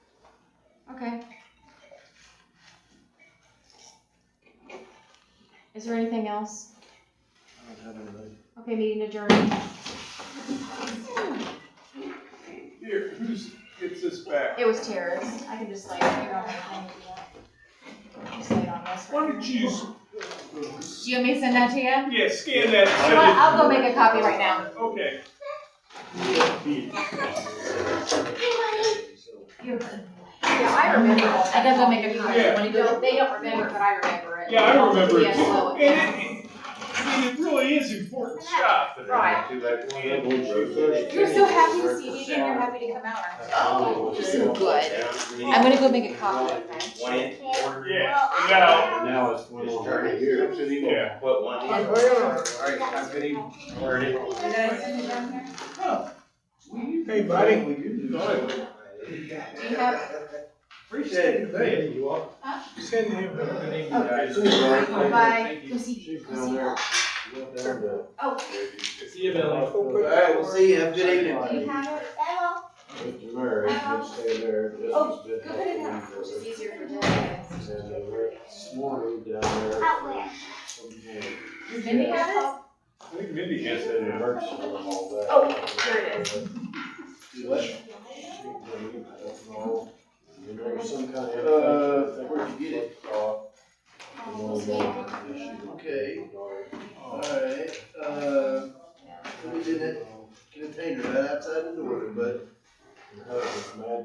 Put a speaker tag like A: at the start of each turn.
A: Okay. Is there anything else?
B: I don't have anything.
A: Okay, meeting adjourned.
C: Here, who's, gets this back?
A: It was terrorist. I can just lay it here on my thing. Just lay it on this
C: Why
A: one.
C: don't you, s-
A: Do you want me to send that to you? You
C: yeah, scan that.
A: know what? I'll go make a copy right now.
C: Okay.
A: Yeah, I remember. I gotta go make a copy.
C: Yeah.
A: They don't- They don't remember, but I remember it.
C: Yeah, I remember it
A: Yeah,
C: too.
A: so-
C: And it, I mean, it really is important stuff.
A: Right. You're so happy to see me again, you're happy to come out.
D: Oh,
A: You're so good. I'm gonna go make a copy of that.
C: Yeah, now,
B: Now it's one
D: Just
B: of
D: turn
B: the.
D: it here.
C: yeah.
D: What, one here? Alright, I'm gonna turn it.
C: Hey,
B: buddy, we do do that.
A: Do you have,
D: Appreciate it.
B: Hey, you are.
A: Huh?
B: Send him.
D: Guys,
A: bye, go see, go
B: Down
A: see.
B: there. Look down there.
A: Oh,
C: See you,
D: Alright, we'll see you, have a good evening.
A: do you have it?
B: Mr. Murray, just stay there. This is
A: Oh,
B: just
A: Go put it
B: a-
A: up, which is easier for Dylan.
B: And they were this morning down there.
E: Out where?
B: Some boy
A: Does Mindy have it?
C: I think Mindy
B: He
C: has
B: said
C: that.
B: it hurts him and all that.
A: Oh, there it
B: is. You know, some kind of.
D: Uh, where'd you get it? Okay.
B: Okay.
D: Alright, uh, we did that container right outside the door, but
B: uh,